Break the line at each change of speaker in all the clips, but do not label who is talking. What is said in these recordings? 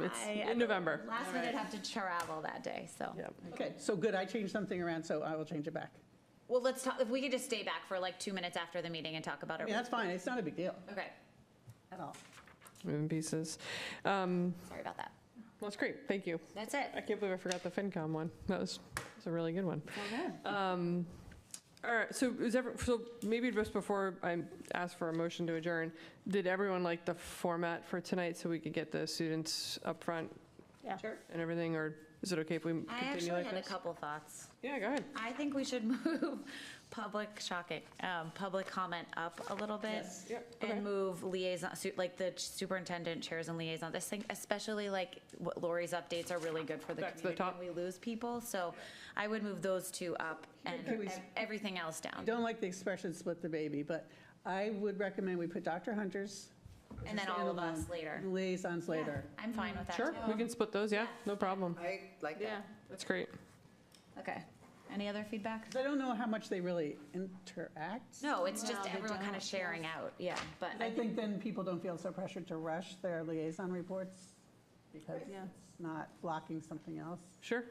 It's
I-
in November.
Last minute have to travel that day, so.
Yeah.
Okay, so good, I changed something around, so I will change it back.
Well, let's talk, if we could just stay back for like two minutes after the meeting and talk about
I
it.
mean, that's fine, it's not a big deal
Okay,
at all.
in pieces. Um,
sorry about that.
Well, it's great, thank you.
That's it.
I can't believe I forgot the FinCom one. That was, that's a really good one. Um, All right, so is ever, so maybe just before I ask for a motion to adjourn, did everyone like the format for tonight so we could get the students up front
Sure.
and everything, or is it okay if we
I
continue
actually
like
had a
this?
couple thoughts.
Yeah, go ahead.
I think we should move public, shocking, um, public comment up a little bit.
Yep, okay.
And move liaison, su- like the superintendent, chairs and liaisons. I think especially like what Lori's updates are really good for the
Back to the
community.
top.
when We lose people, so I would move those two up and
Can we-
ev- everything else down.
Don't like the expression split the baby, but I would recommend we put Dr. Hunter's.
And then all of us
standalone
later.
Liaisons later.
I'm fine with that
Sure, we
too.
can split those, yeah, no problem.
I like that.
That's great.
Okay. Any other feedback?
'Cause I don't know how much they really interact.
No, it's just everyone kind of sharing out, yeah, but
I think then people don't feel so pressured to rush their liaison reports because it's not blocking something else.
Sure.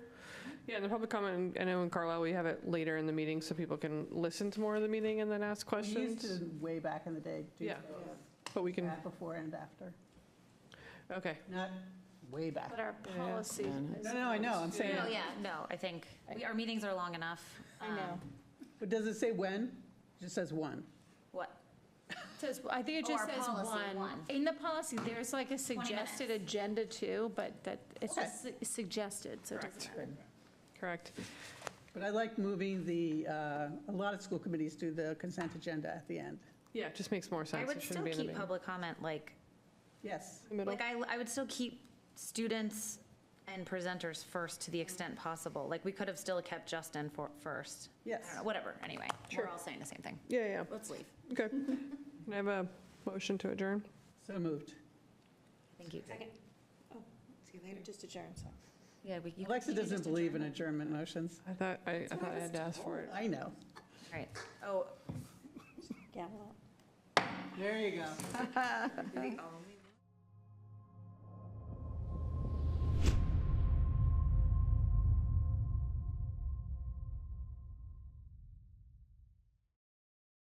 Yeah, and the public comment, I know in Carlisle, we have it later in the meeting so people can listen to more of the meeting and then ask
We used
questions.
to way back in the day, do
Yeah. But we can,
that before and after,
okay.
not way back.
But our policy is.
No,
um,
no, I know, I'm saying,
Oh, yeah, no, I think, we- our meetings are long enough.
I know.
Um,
but does it say when? It just says one.
What,
It Says, I think it
Oh,
just
our
says
policy,
one.
one.
In the policy, there's like a suggested agenda too, but that, it's
Okay.
just su- suggested, so it doesn't matter.
Correct.
But I like moving the, uh, a lot of school committees do the consent agenda at the end.
Yeah, it just makes more sense.
I
It
would
shouldn't
still
be in the
keep
beginning.
public comment, like,
Yes.
The middle.
like I, I would still keep students and presenters first to the extent possible. Like, we could have still kept Justin for, first. I don't
Yes.
know, Whatever, anyway, we're all saying the same thing.
Yeah, yeah,
Let's leave.
okay. Can I have a motion to adjourn?
So moved.
Thank you.
Oh,
See you later, just adjourn, so.
Yeah, we. you-
Alexa
you can
doesn't
just
believe in
adjourn.
adjournment motions.
I thought, I I thought I had to ask for it.
I know.
All right, oh,
There you go.
The only